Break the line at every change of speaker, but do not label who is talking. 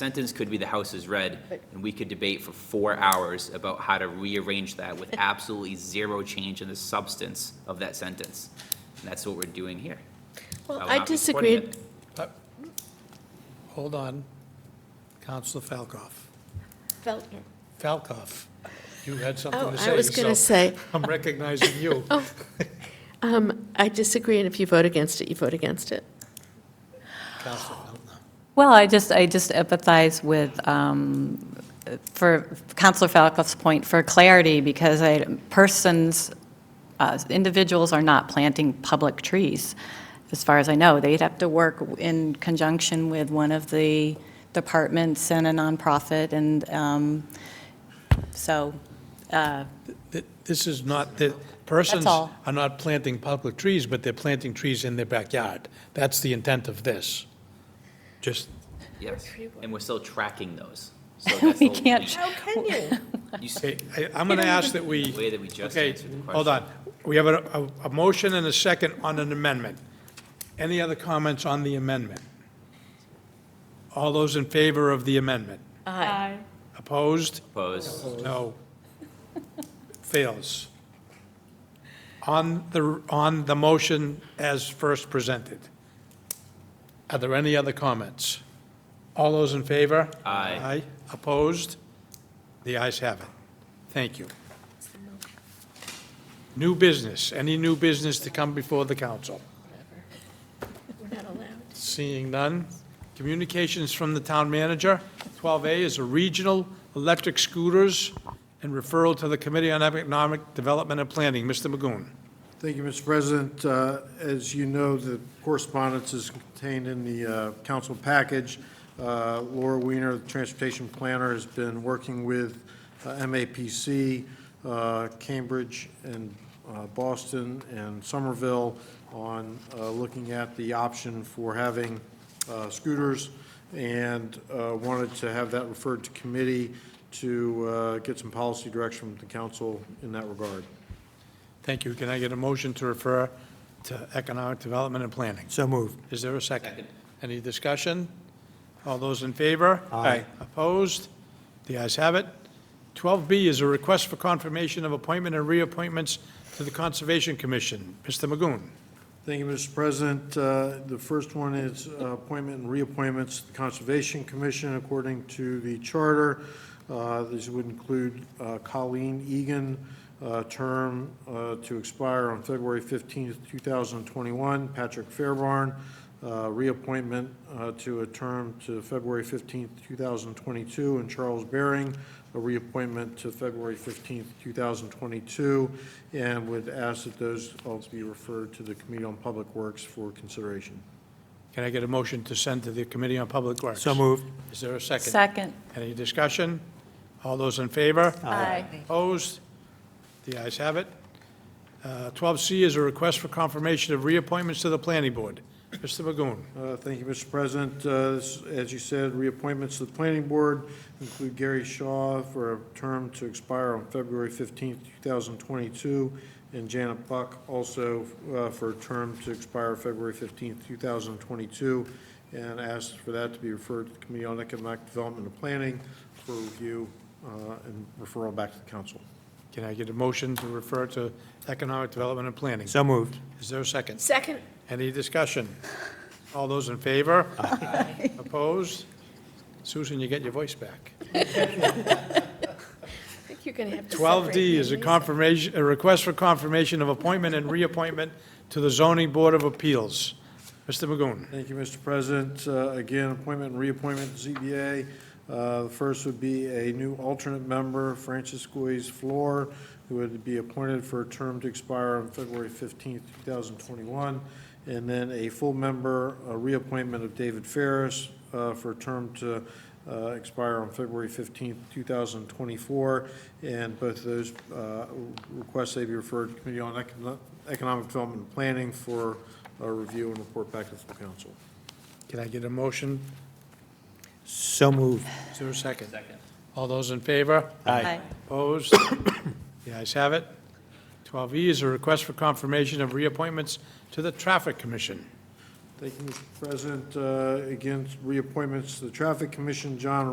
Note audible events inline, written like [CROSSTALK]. sentence could be the House is red,
But-
and we could debate for four hours about how to rearrange that
[LAUGHS]
with absolutely zero change in the substance of that sentence. And that's what we're doing here.
Well,
will
I
not be supporting
disagreed,
it.
Uh, Hold on, Counselor Falcoff.
Feltner.
Falcoff, you had something
Oh,
to say.
I was going to
so
say, Oh.
I'm recognizing
[LAUGHS]
you.
um, I disagree, and if you vote against it, you vote against it.
Counselor Feltner.
Well, I just, I just empathize with, um, for Counselor Falcoff's point, for clarity, because I, persons, uh, individuals are not planting public trees, as far as I know. They'd have to work in conjunction with one of the departments and a nonprofit, and um, so,
Th- This is not, the persons
all.
are not planting public trees, but they're planting trees in their backyard. That's the intent of this. Just,
Yes, and we're still tracking those.
[LAUGHS]
So that's
We
the whole
can't
point.
How can you?
You s-
okay, I- I'm going to ask that we.
The way that we just
Okay,
answered the question.
hold on. We have a, a- a motion and a second on an amendment. Any other comments on the amendment? All those in favor of the amendment?
Aye.
Opposed?
Opposed.
No. Fails. On the, on the motion as first presented. Are there any other comments? All those in favor?
Aye.
Aye. Opposed? The ayes have it. Thank you. New business. Any new business to come before the council?
We're not allowed.
Seeing none. Communications from the town manager. 12A is a regional electric scooters and referral to the Committee on Economic Development and Planning. Mr. Magoon.
Thank you, Mr. President. Uh, As you know, the correspondence is contained in the uh, council package. Uh, Laura Weiner, the transportation planner, has been working with uh, MAPC, uh, Cambridge, and uh, Boston, and Somerville on uh, looking at the option for having uh, scooters, and uh, wanted to have that referred to committee to uh, get some policy direction from the council in that regard.
Thank you. Can I get a motion to refer to Economic Development and Planning? So moved. Is there a second? Any discussion? All those in favor? Aye. Opposed? The ayes have it. 12B is a request for confirmation of appointment and reappointments to the Conservation Commission. Mr. Magoon.
Thank you, Mr. President. Uh, The first one is uh, appointment and reappointments to the Conservation Commission according to the charter. Uh, This would include uh, Colleen Egan, uh, term uh, to expire on February 15th, 2021. Patrick Fairbarn, uh, reappointment uh, to a term to February 15th, 2022. And Charles Bering, a reappointment to February 15th, 2022, and would ask that those all be referred to the Committee on Public Works for consideration.
Can I get a motion to send to the Committee on Public Works? So moved. Is there a second?
second.
Any discussion? All those in favor?
Aye.
Opposed? The ayes have it. Uh, 12C is a request for confirmation of reappointments to the Planning Board. Mr. Magoon.
Uh, Thank you, Mr. President. Uh, this- As you said, reappointments to the Planning Board include Gary Shaw for a term to expire on February 15th, 2022, and Janet Buck also uh, for a term to expire February 15th, 2022, and asked for that to be referred to the Committee on Economic Development and Planning for review uh, and referral back to the council.
Can I get a motion to refer to Economic Development and Planning? So moved. Is there a second?
Second,
Any discussion? All those in favor? Aye. Opposed? Susan, you get your voice back.
I think you're going to have to
Twelve
separate
D
me
is a
and Lisa.
confirmation, a request for confirmation of appointment and reappointment to the zoning board of appeals. Mr. Magoon.
Thank you, Mr. President. Uh, Again, appointment and reappointment to ZBA. Uh, The first would be a new alternate member, Francis Guiz Flor, who would be appointed for a term to expire on February 15th, 2021. And then a full member, a reappointment of David Ferris uh, for a term to uh, expire on February 15th, 2024. And both of those uh, requests they be referred to Committee on Econo- Economic Development and Planning for uh, review and report back to the full council.
Can I get a motion?
So moved.
Is there a second? Second. All those in favor?
Aye.
Opposed? [COUGHS] The ayes have it. Twelve E is a request for confirmation of reappointments to the traffic commission.
Thank you, Mr. President. Uh, Again, reappointments to the Traffic Commission, John